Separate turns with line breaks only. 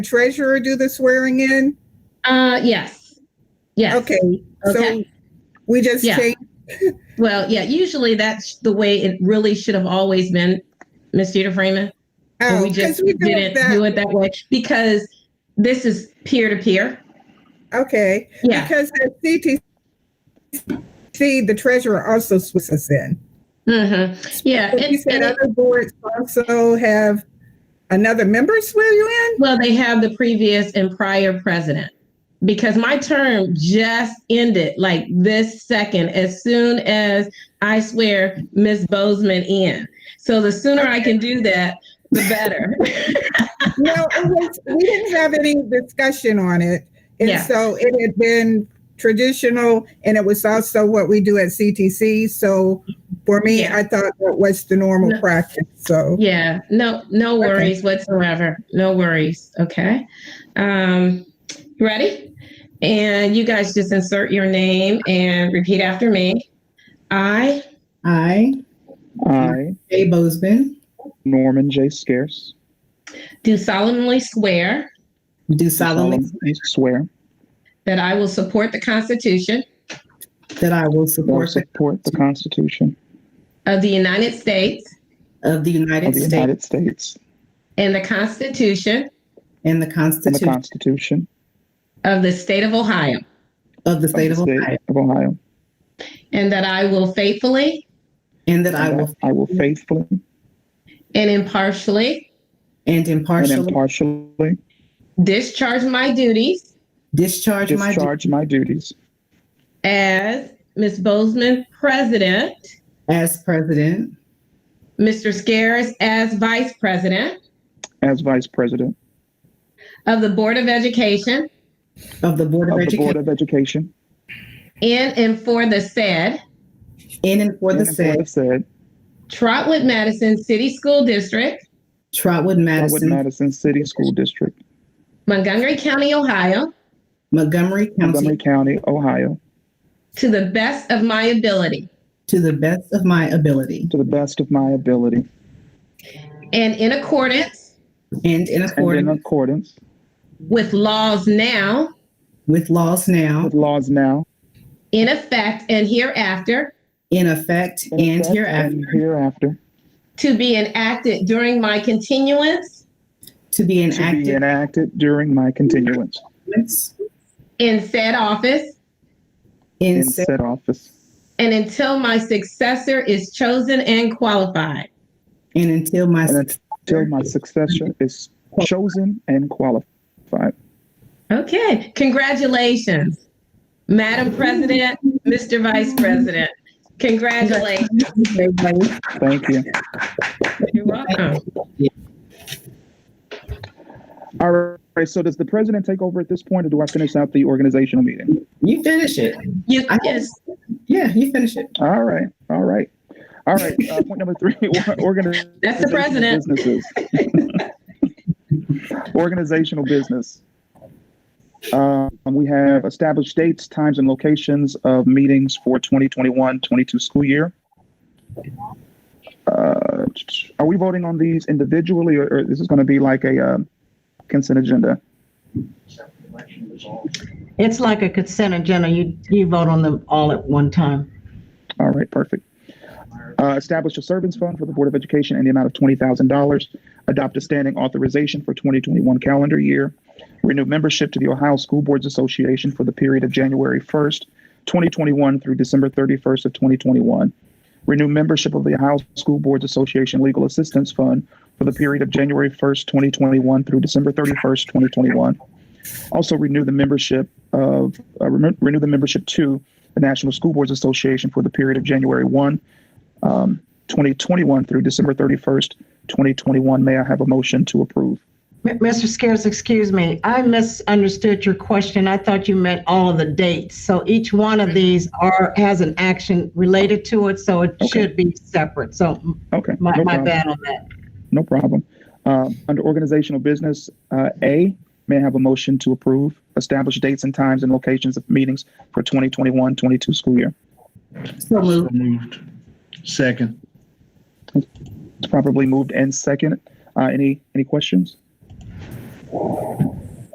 treasurer do the swearing in?
Uh, yes. Yes.
Okay, so
Okay.
we just
Yeah.
changed,
Well, yeah, usually that's the way it really should have always been, Ms. Jeter Freeman. but
oh,
we just
because we do it
didn't do
that,
it that way because this is peer to peer.
okay.
Yeah.
Because at CTC, the treasurer also swears us in.
hmm Yeah.
But you
and-
said
and-
other boards also have another member swear you
well, they have the previous and prior president because my term just ended like this second, as soon as I swear Ms. Bozeman in. So the sooner I can do that, the better.
in? No, it was, we didn't have any discussion on it. And
Yeah.
so it had been traditional and it was also what we do at CTC. So for me,
Yeah.
I thought that was the normal
No.
practice, so.
Yeah, no, no worries whatsoever. No worries. Okay. Um, you ready? And you guys just insert your name and repeat after me. I,
I,
I,
Jay Bozeman,
Norman J. Scarce,
do solemnly swear
do solemnly
solemnly swear
that I will support the Constitution
that I will
that I will
support the
support the Constitution
of the United States
of the United
of the
States
United States
and the Constitution
and the
and the
Constitution
Constitution
of the State of Ohio,
of the
of
State
the
of Ohio,
State of Ohio.
and that I will faithfully
and that I
and
will
that I will faithfully
and impartially
and
and
impartially
impartially
discharge my duties
discharge my duties
discharge my duties
as Ms. Bozeman President,
as president,
Mr. Scares as Vice President.
as Vice President
of the Board of Education
of the Board of
of the Board
Education
of Education
in and for the said
in and for
and
the
of the
said
said
Trotwood Madison City School District,
Trotwood
Norwood
Madison,
Madison City School District,
Montgomery County, Ohio,
Montgomery
Montgomery
County,
County, Ohio,
to the best of my ability
to the best of my ability
to the best of my ability
and in accordance
and in
and in
accordance
accordance
with laws now
with laws now
with laws now
in effect and hereafter
in effect and
effect
hereafter
and hereafter
to be enacted during my continuance
to be
to be
enacted
enacted during my continuance
in said office
in
in
said
said office
and until my successor is chosen and qualified.
and until my
And till my successor is chosen and qualified.
Okay, congratulations, Madam President, Mr. Vice President. Congratulations.
Thank you.
You're welcome.
All right, so does the president take over at this point, or do I finish out the organizational meeting?
you finish it.
You,
I-
yes,
Yeah, you finish it.
All right, all right. All right, uh, point number three, organizational
That's the president.
businesses. Organizational business. Um, We have established dates, times, and locations of meetings for 2021-22 school year. Uh, Are we voting on these individually, or- or this is going to be like a um, consent agenda?
It's like a consent agenda. You, you vote on them all at one time.
All right, perfect. Uh, establish a servants fund for the Board of Education in the amount of twenty thousand dollars. Adopt a standing authorization for twenty twenty-one calendar year. Renew membership to the Ohio School Boards Association for the period of January first, twenty twenty-one through December thirty-first of twenty twenty-one. Renew membership of the Ohio School Boards Association Legal Assistance Fund for the period of January first, twenty twenty-one through December thirty-first, twenty twenty-one. Also renew the membership of, uh, rem- renew the membership to the National School Boards Association for the period of January 1, um, 2021 through December 31st, 2021. May I have a motion to approve?
M- Mr. Scares, excuse me, I misunderstood your question. I thought you meant all of the dates. So each one of these are, has an action related to it, so it
Okay.
should be separate. So
Okay.
my,
no
my
problem.
bad on that.
No problem. Um, under organizational business, uh, A, may I have a motion to approve? Establish dates and times and locations of meetings for 2021 22 school year.
So
So
moved.
moved. Second.
It's probably moved and second. Uh, any any questions?